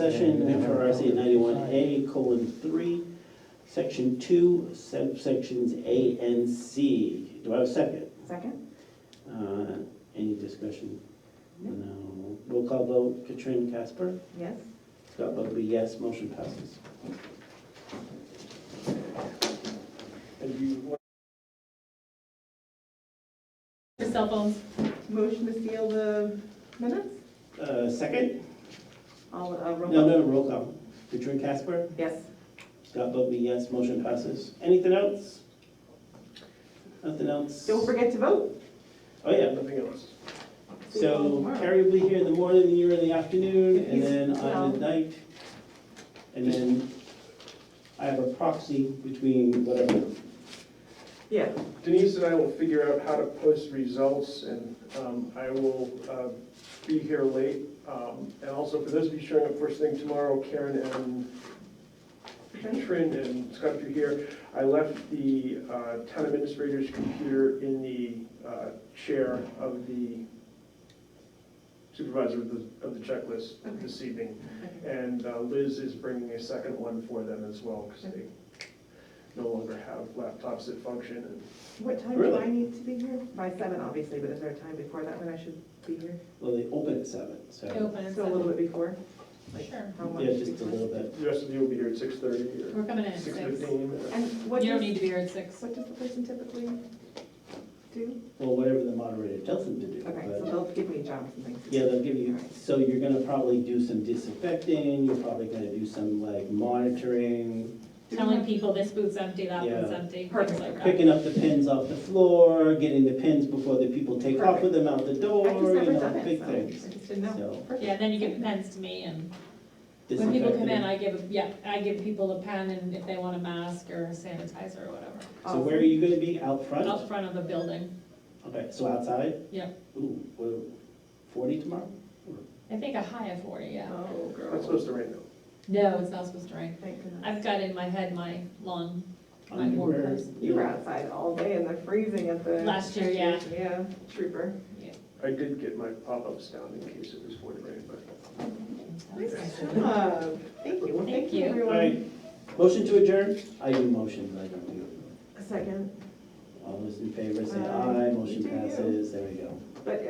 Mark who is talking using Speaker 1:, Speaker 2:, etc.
Speaker 1: Session MRSA ninety-one A colon three, section two, subsections A and C. Do I have a second?
Speaker 2: Second?
Speaker 1: Uh, Any discussion? No. Roll call vote, Katrin Casper?
Speaker 2: Yes?
Speaker 1: Scott Bugby, yes, motion passes.
Speaker 3: Your cell phones?
Speaker 2: Motion to seal the minutes?
Speaker 1: Uh, Second?
Speaker 2: All, uh, roll
Speaker 1: No,
Speaker 2: call?
Speaker 1: no, roll call. Katrin Casper?
Speaker 2: Yes.
Speaker 1: Scott Bugby, yes, motion passes. Anything else? Nothing else?
Speaker 2: Don't forget to vote.
Speaker 1: Oh, yeah.
Speaker 2: See you all
Speaker 1: So
Speaker 2: tomorrow.
Speaker 1: Carrie will be here in the morning, you're in the afternoon, and
Speaker 2: Yes,
Speaker 1: then I'm
Speaker 2: well.
Speaker 1: at night. And then I have a proxy between whatever.
Speaker 2: Yeah.
Speaker 4: Denise and I will figure out how to post results, and um, I will uh, be here late. Um, And also, for those of you showing up first thing tomorrow, Karen and Trin and Scott, if you're here, I left the uh, town administrator's computer in the uh, chair of the supervisor of the of the checklist this evening. And uh, Liz is bringing a second one for them as well, because they no longer have laptops that function, and
Speaker 2: What time do
Speaker 1: Really?
Speaker 2: I need to be here? By seven, obviously, but is there a time before that when I should be here?
Speaker 1: Well, they open at seven, so,
Speaker 3: Open at
Speaker 2: So a little bit
Speaker 3: seven.
Speaker 2: before? like,
Speaker 3: Sure.
Speaker 2: How much?
Speaker 1: yeah, just a
Speaker 2: before?
Speaker 1: little bit.
Speaker 4: The rest of you will be here at six thirty or
Speaker 3: We're coming in Mm, at
Speaker 4: six
Speaker 3: six.
Speaker 4: fifteen.
Speaker 2: And what
Speaker 3: You don't
Speaker 2: does,
Speaker 3: need to be here at six.
Speaker 2: what does the person typically do?
Speaker 1: Well, whatever the moderator tells them to do.
Speaker 2: Okay, so
Speaker 1: but-
Speaker 2: they'll give me jobs and things. to do.
Speaker 1: Uh, Yeah, they'll give you,
Speaker 2: Alright.
Speaker 1: so you're gonna probably do some disinfecting, you're probably gonna do some like monitoring,
Speaker 3: Telling people this booth's empty, that one's
Speaker 1: Yeah.
Speaker 3: empty, things
Speaker 2: Perfect.
Speaker 3: like that.
Speaker 1: picking up the pins off the floor, getting the pins before the people take off with them out the door,
Speaker 2: I've just
Speaker 1: you
Speaker 2: never
Speaker 1: know,
Speaker 2: done it,
Speaker 1: big
Speaker 2: so I
Speaker 1: things.
Speaker 2: just didn't know.
Speaker 1: So,
Speaker 3: Yeah, then you give the pens to me and when people come in,
Speaker 1: disinfecting.
Speaker 3: I give, yeah, I give people a pen and if they want a mask or sanitizer or whatever.
Speaker 1: So where are you gonna be, out front?
Speaker 3: Out front of the building.
Speaker 1: Okay, so outside?
Speaker 3: Yeah.
Speaker 1: Ooh, what, forty tomorrow?
Speaker 3: I think a high of forty, yeah.
Speaker 2: Oh,
Speaker 4: Not
Speaker 2: girl.
Speaker 4: supposed to rain though.
Speaker 3: No, it's not supposed to rain.
Speaker 2: Thank goodness.
Speaker 3: I've got in my head my long, my
Speaker 1: Um,
Speaker 3: warm
Speaker 1: where-
Speaker 3: clothes.
Speaker 2: You were outside all day in the freezing at the.
Speaker 3: Last year, yeah.
Speaker 2: Yeah, trooper.
Speaker 4: I did get my pop-ups down in case it was going to rain, but
Speaker 2: Nice job. Uh, Thank you. Well,
Speaker 3: Thank
Speaker 2: thank
Speaker 3: you.
Speaker 2: you,
Speaker 1: All
Speaker 2: everyone.
Speaker 1: right, motion to adjourn? I do motions, I don't do.
Speaker 2: A second,
Speaker 1: All those in favor say
Speaker 2: Aye.
Speaker 1: aye, motion
Speaker 2: Uh, You do you.
Speaker 1: passes, there we go.
Speaker 2: but